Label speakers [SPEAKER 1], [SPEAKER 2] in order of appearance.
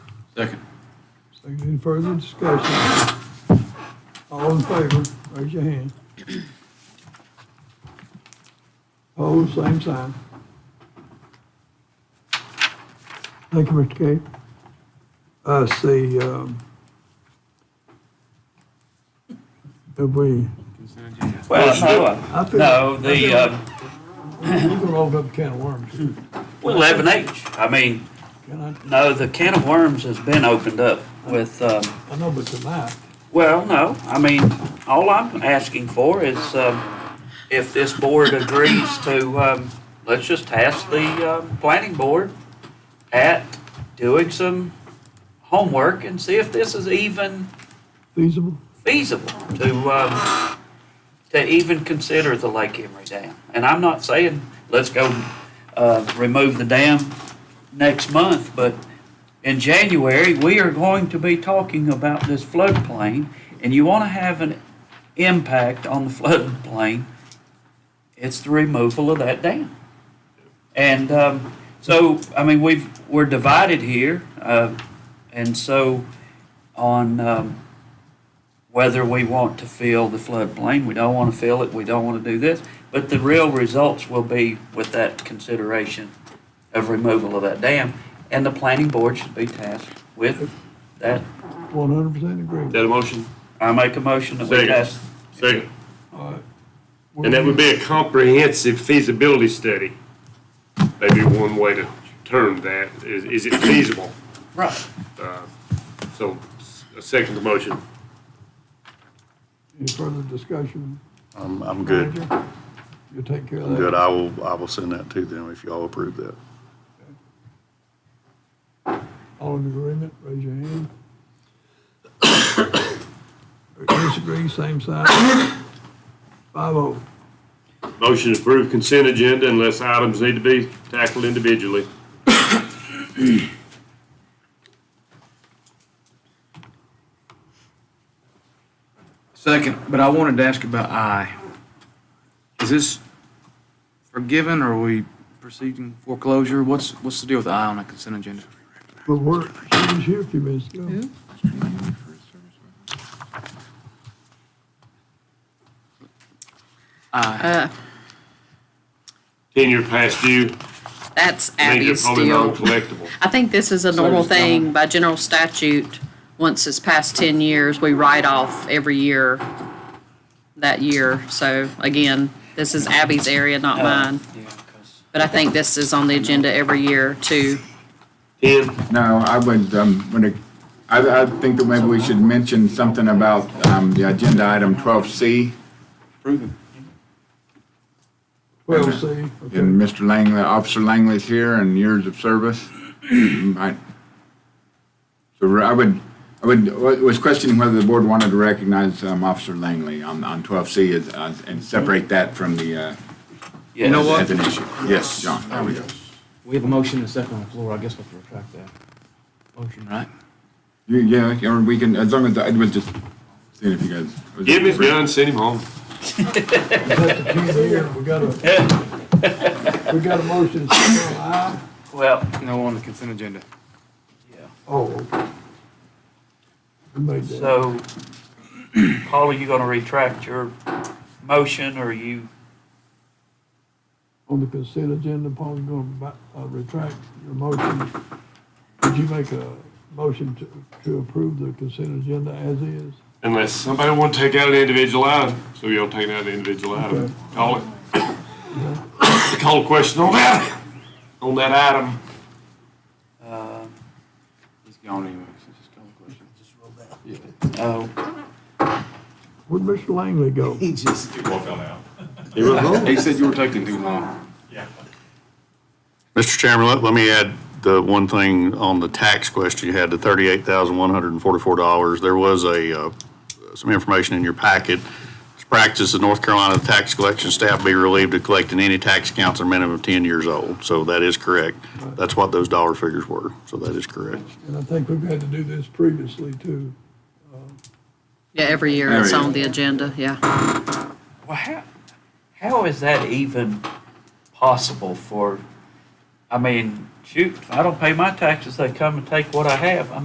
[SPEAKER 1] Second.
[SPEAKER 2] Second, Any further discussion? All in favor, raise your hand. Opposed, same sign. Thank you, Mr. Kay. I see, um, that we,
[SPEAKER 3] Well, no,
[SPEAKER 2] I
[SPEAKER 3] uh,
[SPEAKER 2] feel-
[SPEAKER 3] no, the, uh,
[SPEAKER 2] we're gonna open up a can of worms.
[SPEAKER 3] eleven H, I mean,
[SPEAKER 2] Can I,
[SPEAKER 3] no, the can of worms has been opened up with, um,
[SPEAKER 2] I know, but tonight,
[SPEAKER 3] well, no, I mean, all I'm asking for is, um, if this board agrees to, um, let's just task the, um, planning board at doing some homework and see if this is even
[SPEAKER 2] feasible?
[SPEAKER 3] feasible to, um, to even consider the Lake Emery Dam. And I'm not saying, let's go, uh, remove the dam next month, but in January, we are going to be talking about this floodplain, and you wanna have an impact on the floodplain, it's the removal of that dam. And, um, so, I mean, we've, we're divided here, uh, and so on, um, whether we want to fill the floodplain, we don't want to fill it, we don't want to do this, but the real results will be with that consideration of removal of that dam, and the planning board should be tasked with that.
[SPEAKER 2] One hundred percent agree.
[SPEAKER 4] That a motion?
[SPEAKER 3] I make a motion that we
[SPEAKER 4] Second.
[SPEAKER 3] pass.
[SPEAKER 4] Second.
[SPEAKER 2] All right.
[SPEAKER 4] And that would be a comprehensive feasibility study. Maybe one way to term that, is, is it feasible?
[SPEAKER 3] Right.
[SPEAKER 4] Uh, So, s- a second to motion.
[SPEAKER 2] Any further discussion?
[SPEAKER 5] I'm, I'm good.
[SPEAKER 2] Roger? You'll take care of
[SPEAKER 5] I'm
[SPEAKER 2] that?
[SPEAKER 5] good. I will, I will send that to them if y'all approve that.
[SPEAKER 2] All in agreement, raise your hand. Disagree, same side. Five oh.
[SPEAKER 4] Motion to approve consent agenda unless items need to be tackled individually.
[SPEAKER 1] Second, but I wanted to ask about I. Is this forgiven or are we proceeding foreclosure? What's, what's the deal with I on the consent agenda?
[SPEAKER 2] But we're, she was here a few minutes ago.
[SPEAKER 1] I,
[SPEAKER 6] Uh,
[SPEAKER 4] Ten-year past due,
[SPEAKER 6] that's
[SPEAKER 4] major
[SPEAKER 6] Abby's
[SPEAKER 4] probably
[SPEAKER 6] deal.
[SPEAKER 4] non-collectible.
[SPEAKER 6] I think this is a normal
[SPEAKER 1] just tell
[SPEAKER 6] thing by general statute. Once it's past ten years, we write off every year that year. So again, this is Abby's area, not mine.
[SPEAKER 3] Yeah, 'cause-
[SPEAKER 6] But I think this is on the agenda every year too.
[SPEAKER 4] Ten,
[SPEAKER 7] No, I would, um, when it, I, I think that maybe we should mention something about, um, the agenda item twelve C
[SPEAKER 1] Proven.
[SPEAKER 2] Twelve C, okay.
[SPEAKER 7] and Mr. Langley, Officer Langley's here and years of service. I- So I would, I would, I was questioning whether the board wanted to recognize, um, Officer Langley on, on twelve C as, uh, and separate that from the, uh,
[SPEAKER 3] yeah.
[SPEAKER 1] know what?
[SPEAKER 7] as an issue. Yes, John, there we go.
[SPEAKER 1] We have a motion and a second on the floor. I guess we have to retract that. Motion, right?
[SPEAKER 7] You- Yeah, yeah, we can, as long as, I was just seeing if you guys.
[SPEAKER 4] give him his gun, send him home.
[SPEAKER 2] That's the key here. We got a, we got a motion, to say aye.
[SPEAKER 3] Well,
[SPEAKER 1] No on the consent agenda.
[SPEAKER 2] Oh, okay. We made that.
[SPEAKER 3] so, Paul, are you gonna retract your motion, or you,
[SPEAKER 2] On the consent agenda, Paul's gonna, uh, retract your motion. Did you make a motion to, to approve the consent agenda as is?
[SPEAKER 4] Unless somebody want to take out an individual item, so you'll take out an individual item. Call it. Call a question on that, on that item.
[SPEAKER 3] uh,
[SPEAKER 1] He's gone anyway. so just call the question.
[SPEAKER 3] oh,
[SPEAKER 2] Where'd Mr. Langley go?
[SPEAKER 1] He said you were taking too long.
[SPEAKER 5] Mr. Chairman, let, let me add the one thing on the tax question you had, the thirty-eight thousand one hundred and forty-four dollars. There was a, uh, some information in your packet. It's practice of North Carolina tax collection staff be relieved of collecting any tax accounts that are minimum of ten years old. So that is correct. That's what those dollar figures were. So that is correct.
[SPEAKER 2] And I think we've had to do this previously too.
[SPEAKER 6] Yeah, every year
[SPEAKER 7] There
[SPEAKER 6] it's
[SPEAKER 7] you
[SPEAKER 6] on
[SPEAKER 7] go.
[SPEAKER 6] the agenda, yeah.
[SPEAKER 3] Well, how, how is that even possible for, I mean, shoot, if I don't pay my taxes, they come and take what I have. I